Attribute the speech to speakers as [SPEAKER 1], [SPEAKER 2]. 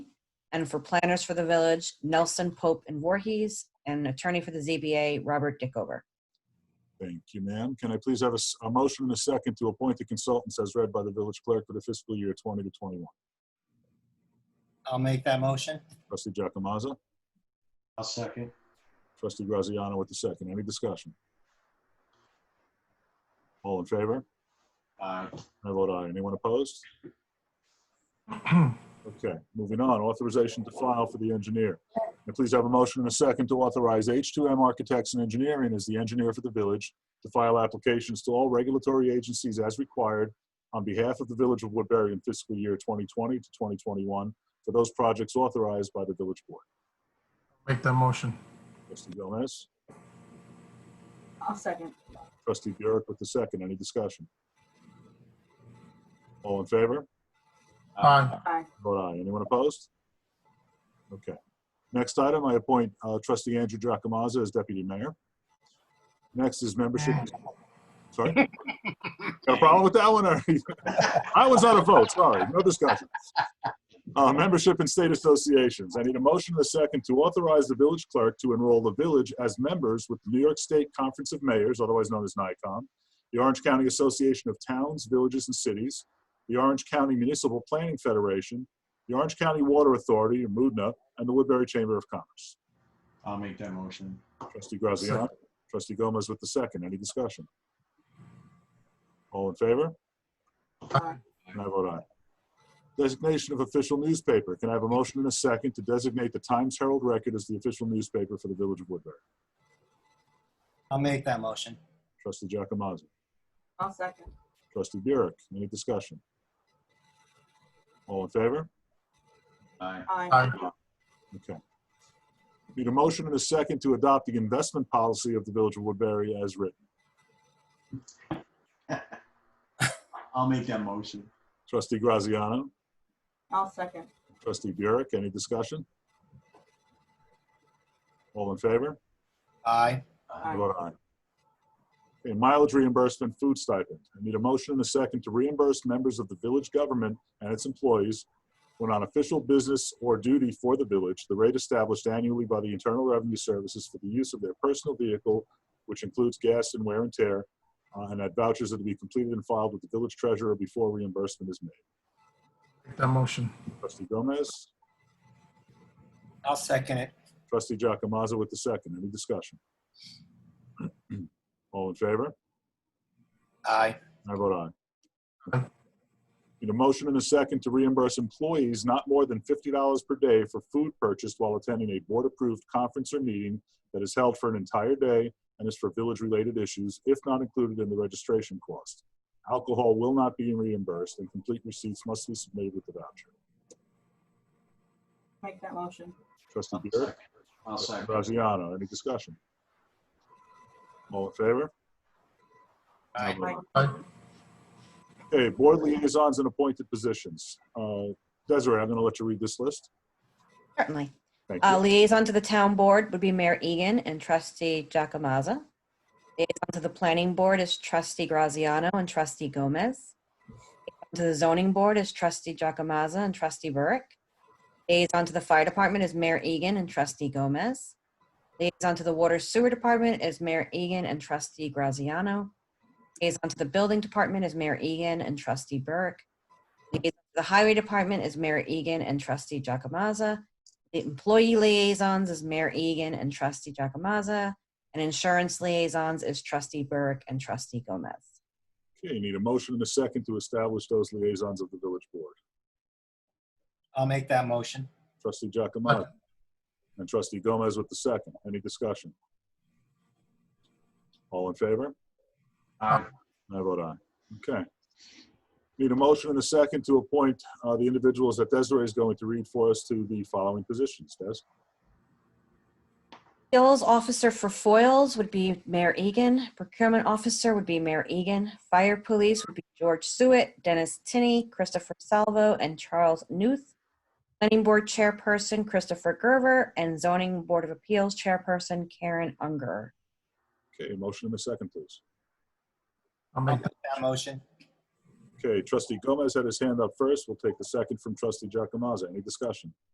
[SPEAKER 1] and for planners for the village, Nelson Pope and Voorhees, and attorney for the ZBA, Robert Dickover.
[SPEAKER 2] Thank you, ma'am. Can I please have a, s- a motion and a second to appoint the consultants as read by the village clerk for the fiscal year 20 to 21?
[SPEAKER 3] I'll make that motion.
[SPEAKER 2] Trustee Jacomaza,
[SPEAKER 4] I'll second.
[SPEAKER 2] trustee Graziano with the second. Any discussion? All in favor?
[SPEAKER 4] Aye.
[SPEAKER 2] I vote aye. Anyone opposed? Okay, moving on. Authorization to file for the engineer. And please have a motion and a second to authorize H2M Architects and Engineering as the engineer for the village to file applications to all regulatory agencies as required on behalf of the Village of Woodbury in fiscal year 2020 to 2021 for those projects authorized by the village board.
[SPEAKER 5] Make that motion.
[SPEAKER 2] Trustee Gomez,
[SPEAKER 6] I'll second.
[SPEAKER 2] trustee Burek with the second. Any discussion? All in favor?
[SPEAKER 5] Aye.
[SPEAKER 6] Aye.
[SPEAKER 2] Vote aye. Anyone opposed? Okay. Next item, I appoint uh, trustee Andrew Jacomaza as deputy mayor. Next is membership. Sorry? Got a problem with that one? or- I was out of vote, sorry. No discussion. Uh, Membership in state associations. I need a motion and a second to authorize the village clerk to enroll the village as members with the New York State Conference of Mayors, otherwise known as NICOM, the Orange County Association of Towns, Villages, and Cities, the Orange County Municipal Planning Federation, the Orange County Water Authority, or MUDNA, and the Woodbury Chamber of Commerce.
[SPEAKER 4] I'll make that motion.
[SPEAKER 2] Trustee Graziano, trustee Gomez with the second. Any discussion? All in favor?
[SPEAKER 6] Aye.
[SPEAKER 2] And I vote aye. Designation of official newspaper. Can I have a motion and a second to designate the Times Herald Record as the official newspaper for the Village of Woodbury?
[SPEAKER 3] I'll make that motion.
[SPEAKER 2] Trustee Jacomaza,
[SPEAKER 6] I'll second.
[SPEAKER 2] trustee Burek, any discussion? All in favor?
[SPEAKER 4] Aye.
[SPEAKER 6] Aye.
[SPEAKER 5] Aye.
[SPEAKER 2] Okay. Need a motion and a second to adopt the investment policy of the Village of Woodbury as written.
[SPEAKER 4] I'll make that motion.
[SPEAKER 2] Trustee Graziano,
[SPEAKER 6] I'll second.
[SPEAKER 2] trustee Burek, any discussion? All in favor?
[SPEAKER 3] Aye.
[SPEAKER 2] I
[SPEAKER 6] Aye.
[SPEAKER 2] vote aye. Okay, mileage reimbursement, food stipend. I need a motion and a second to reimburse members of the village government and its employees when on official business or duty for the village, the rate established annually by the Internal Revenue Services for the use of their personal vehicle, which includes gas and wear and tear, uh, and that vouchers are to be completed and filed with the village treasurer before reimbursement is made.
[SPEAKER 5] Make that motion.
[SPEAKER 2] Trustee Gomez,
[SPEAKER 3] I'll second it.
[SPEAKER 2] trustee Jacomaza with the second. Any discussion? All in favor?
[SPEAKER 3] Aye.
[SPEAKER 2] I vote aye. Need a motion and a second to reimburse employees not more than fifty dollars per day for food purchased while attending a board-approved conference or meeting that is held for an entire day and is for village-related issues, if not included in the registration cost. Alcohol will not be reimbursed, and complete receipts must be submitted with the voucher.
[SPEAKER 6] Make that motion.
[SPEAKER 2] Trustee
[SPEAKER 4] I'll
[SPEAKER 2] Burek?
[SPEAKER 4] second. I'll second.
[SPEAKER 2] Graziano, any discussion? All in favor?
[SPEAKER 3] Aye.
[SPEAKER 6] Aye.
[SPEAKER 2] Okay, board liaisons and appointed positions. Uh, Desiree, I'm going to let you read this list.
[SPEAKER 1] Certainly.
[SPEAKER 2] Thank
[SPEAKER 1] Uh,
[SPEAKER 2] you.
[SPEAKER 1] Liaison to the town board would be Mayor Egan and trustee Jacomaza. Liaison to the planning board is trustee Graziano and trustee Gomez. Liaison To the zoning board is trustee Jacomaza and trustee Burke. Liaison to the fire department is Mayor Egan and trustee Gomez. Liaison to the water sewer department is Mayor Egan and trustee Graziano. Liaison to the building department is Mayor Egan and trustee Burke. Liaison to The highway department is Mayor Egan and trustee Jacomaza. The employee liaisons is Mayor Egan and trustee Jacomaza, and insurance liaisons is trustee Burke and trustee Gomez.
[SPEAKER 2] Okay, you need a motion and a second to establish those liaisons of the village board.
[SPEAKER 3] I'll make that motion.
[SPEAKER 2] Trustee Giacomo and trustee Gomez with the second. Any discussion? All in favor?
[SPEAKER 4] Aye.
[SPEAKER 2] I vote aye. Okay. Need a motion and a second to appoint uh, the individuals that Desiree is going to read for us to the following positions. Des?
[SPEAKER 1] Skills officer for foils would be Mayor Egan, procurement officer would be Mayor Egan, fire police would be George Suet, Dennis Tinney, Christopher Salvo, and Charles Newth. Planning board chairperson Christopher Gerver, and zoning board of appeals chairperson Karen Unger.
[SPEAKER 2] Okay, motion and a second, please.
[SPEAKER 5] I'll
[SPEAKER 3] I'll
[SPEAKER 5] make
[SPEAKER 3] make that motion.
[SPEAKER 2] Okay, trustee Gomez had his hand up first. We'll take the second from trustee Giacomo. Any discussion?